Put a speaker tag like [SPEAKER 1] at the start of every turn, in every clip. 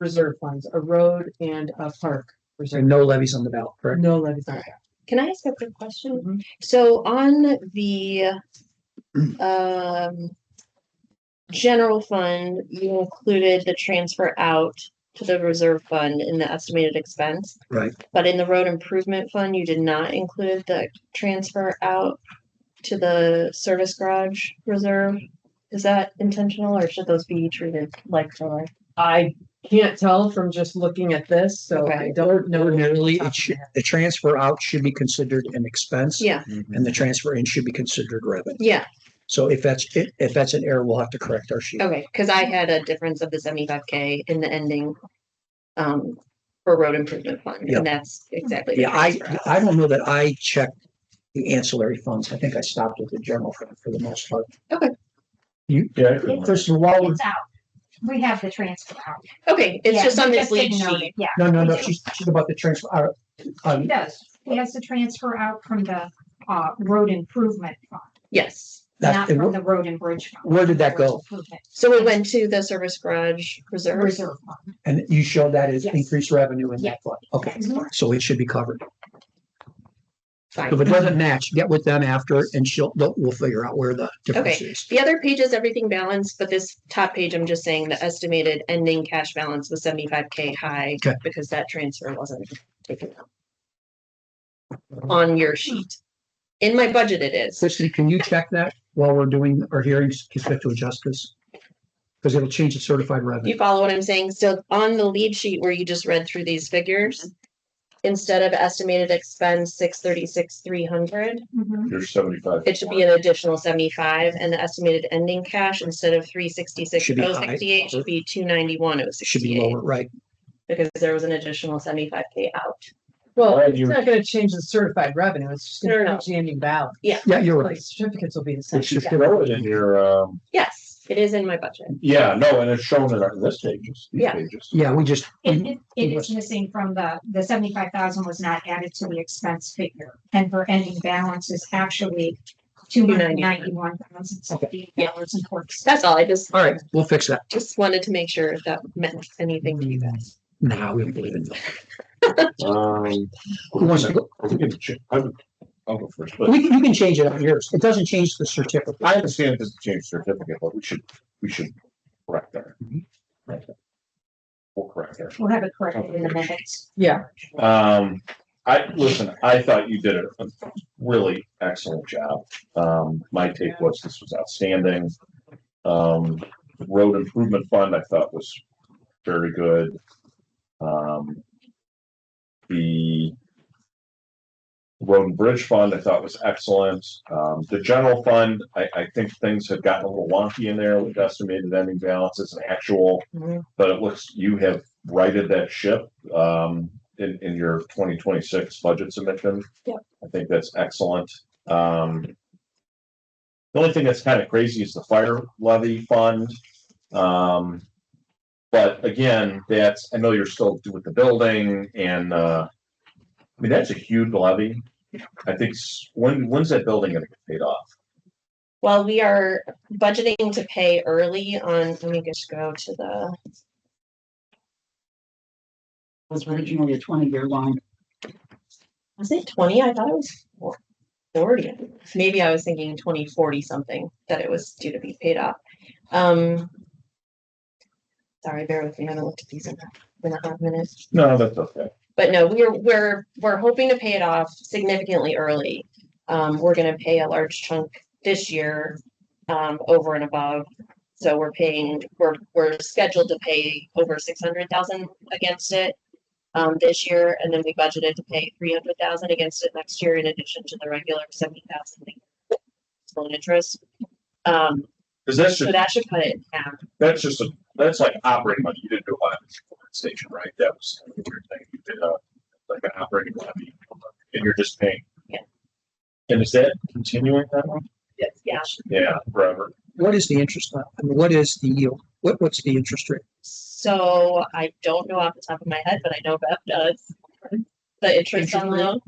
[SPEAKER 1] reserve funds, a road and a park
[SPEAKER 2] So
[SPEAKER 1] reserve.
[SPEAKER 2] no levies on the ballot, correct?
[SPEAKER 1] No levies on that.
[SPEAKER 3] Can I ask a quick question?
[SPEAKER 1] Mhm.
[SPEAKER 3] So on the um general fund, you included the transfer out to the reserve fund in the estimated expense,
[SPEAKER 2] Right.
[SPEAKER 3] but in the road improvement fund, you did not include the transfer out to the service garage reserve. Is that intentional or should those be treated like for like?
[SPEAKER 1] I can't tell from just looking at this, so I
[SPEAKER 3] Okay.
[SPEAKER 1] don't know.
[SPEAKER 2] Ordinarily,
[SPEAKER 1] off the top
[SPEAKER 2] it
[SPEAKER 1] of
[SPEAKER 2] should,
[SPEAKER 1] my head.
[SPEAKER 2] the transfer out should be considered an expense.
[SPEAKER 3] Yeah,
[SPEAKER 2] And the transfer in should be considered revenue.
[SPEAKER 3] yeah,
[SPEAKER 2] So if that's, if that's an error, we'll have to correct our sheet.
[SPEAKER 3] okay, because I had a difference of the seventy-five K in the ending um for road improvement fund,
[SPEAKER 2] Yeah.
[SPEAKER 3] and that's exactly. the
[SPEAKER 2] Yeah, I,
[SPEAKER 3] transfer out.
[SPEAKER 2] I don't know that I checked the ancillary funds. I think I stopped with the general fund for the most part.
[SPEAKER 3] Okay.
[SPEAKER 2] You,
[SPEAKER 4] Yeah.
[SPEAKER 2] Kristen, while, we're-
[SPEAKER 5] It's out. We have the transfer out.
[SPEAKER 3] Okay, it's
[SPEAKER 5] Yeah,
[SPEAKER 3] just on
[SPEAKER 5] we
[SPEAKER 3] this lead
[SPEAKER 5] didn't note
[SPEAKER 3] sheet.
[SPEAKER 5] it. Yeah.
[SPEAKER 2] no, no, no, she's, she's about the transfer, uh,
[SPEAKER 5] He
[SPEAKER 2] um,
[SPEAKER 5] does. He has the transfer out from the, uh, road improvement fund,
[SPEAKER 3] Yes.
[SPEAKER 2] that,
[SPEAKER 5] not from the road and bridge. fund.
[SPEAKER 2] Where did that go?
[SPEAKER 5] Improvement
[SPEAKER 3] So it went to the service garage reserve.
[SPEAKER 5] Reserve fund.
[SPEAKER 2] and you showed that as
[SPEAKER 5] Yes.
[SPEAKER 2] increased revenue in
[SPEAKER 5] Yeah.
[SPEAKER 2] that fund. Okay,
[SPEAKER 5] Mhm.
[SPEAKER 2] so it should be covered. If
[SPEAKER 3] Fine.
[SPEAKER 2] it doesn't match, get with them after and she'll, they'll- we'll figure out where the difference is.
[SPEAKER 3] The other page is everything balanced, but this top page, I'm just saying the estimated ending cash balance was seventy-five K high
[SPEAKER 2] Okay.
[SPEAKER 3] because that transfer wasn't taken out. On your sheet. In my budget it is.
[SPEAKER 2] Kristen, can you check that while we're doing our hearings, constitutional justice? Because it'll change the certified
[SPEAKER 3] You
[SPEAKER 2] revenue.
[SPEAKER 3] follow what I'm saying? So on the lead sheet where you just read through these figures, instead of estimated expense six thirty-six, three hundred,
[SPEAKER 5] Mhm.
[SPEAKER 4] You're seventy-five.
[SPEAKER 3] It should be an additional seventy-five and the estimated ending cash instead of three sixty-six,
[SPEAKER 2] Should be
[SPEAKER 3] oh
[SPEAKER 2] high.
[SPEAKER 3] sixty-eight should be two ninety-one, oh
[SPEAKER 2] It should be
[SPEAKER 3] sixty-eight.
[SPEAKER 2] lower, right?
[SPEAKER 3] Because there was an additional seventy-five K out.
[SPEAKER 1] Well,
[SPEAKER 4] Why
[SPEAKER 1] it's
[SPEAKER 4] you-
[SPEAKER 1] not gonna change the certified revenue, it's just
[SPEAKER 3] No,
[SPEAKER 1] gonna
[SPEAKER 3] no, no.
[SPEAKER 1] change the ending balance.
[SPEAKER 2] Yeah, you're
[SPEAKER 1] Like
[SPEAKER 2] right.
[SPEAKER 1] certificates will be the same.
[SPEAKER 2] It's just-
[SPEAKER 4] Throw it in your, um,
[SPEAKER 3] Yes, it is in my budget.
[SPEAKER 4] yeah, no, and it's shown in our- this pages, these
[SPEAKER 3] Yeah.
[SPEAKER 4] pages.
[SPEAKER 2] Yeah, we just,
[SPEAKER 5] It, it, it is
[SPEAKER 2] was-
[SPEAKER 5] missing from the, the seventy-five thousand was not added to the expense figure, and her ending balance is actually two hundred ninety-one thousand seventy dollars and forty.
[SPEAKER 3] That's all. I just,
[SPEAKER 2] all right, we'll fix that.
[SPEAKER 3] just wanted to make sure if that meant anything to you
[SPEAKER 2] Hmm.
[SPEAKER 3] guys.
[SPEAKER 2] Nah, we don't believe in that.
[SPEAKER 4] Um,
[SPEAKER 2] Who wants to go?
[SPEAKER 4] we can ch- I'm- I'll go first, but
[SPEAKER 2] We, can- you can change it on yours. It doesn't change the certificate.
[SPEAKER 4] I understand this change certificate, but we should, we should correct that.
[SPEAKER 2] Mhm. Right.
[SPEAKER 4] We'll correct that.
[SPEAKER 5] We'll have it corrected in the minutes.
[SPEAKER 1] Yeah.
[SPEAKER 4] Um, I, listen, I thought you did a really excellent job. Um, my take was this was outstanding. Um, road improvement fund, I thought was very good. Um, the road and bridge fund, I thought was excellent. Um, the general fund, I, I think things have gotten a little wonky in there with estimated ending balances and actual but it looks, you have righted that ship, um, in, in your twenty twenty-six budget submission.
[SPEAKER 3] Yep.
[SPEAKER 4] I think that's excellent. Um, the only thing that's kind of crazy is the fire levy fund. Um, but again, that's, I know you're still with the building and, uh, I mean, that's a huge levy. I think, s- when, when's that building gonna get paid off?
[SPEAKER 3] Well, we are budgeting to pay early on, let me just go to the,
[SPEAKER 6] was originally a twenty-year loan.
[SPEAKER 3] was it twenty? I thought it was four- forty. Maybe I was thinking twenty forty something, that it was due to be paid off. Um. Sorry, bear with me. I haven't looked at these in a- in a half minute.
[SPEAKER 4] No, that's okay.
[SPEAKER 3] But no, we're, we're, we're hoping to pay it off significantly early. Um, we're gonna pay a large chunk this year, um, over and above. So we're paying, we're, we're scheduled to pay over six hundred thousand against it. Um, this year, and then we budgeted to pay three hundred thousand against it next year in addition to the regular seventy thousand. Loan interest. Um,
[SPEAKER 4] Cause that's
[SPEAKER 3] so
[SPEAKER 4] just,
[SPEAKER 3] that should cut it in half.
[SPEAKER 4] that's just a, that's like operating money. You didn't do a lot of this for that station, right? That was kind of a weird thing. You did a, like an operating levy and you're just paying.
[SPEAKER 3] Yeah.
[SPEAKER 4] And is that continuing that one?
[SPEAKER 3] Yeah,
[SPEAKER 4] Yeah, forever.
[SPEAKER 2] What is the interest? on- I mean, what is the yield? What, what's the interest rate?
[SPEAKER 3] So I don't know off the top of my head, but I know Bev does. The interest on the loan,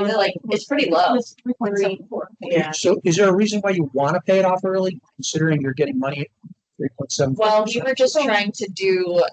[SPEAKER 3] is it like, it's pretty low.
[SPEAKER 5] Three point seven four.
[SPEAKER 3] Yeah,
[SPEAKER 2] So is there a reason why you want to pay it off early, considering you're getting money at three point seven?
[SPEAKER 3] well, we were just trying to do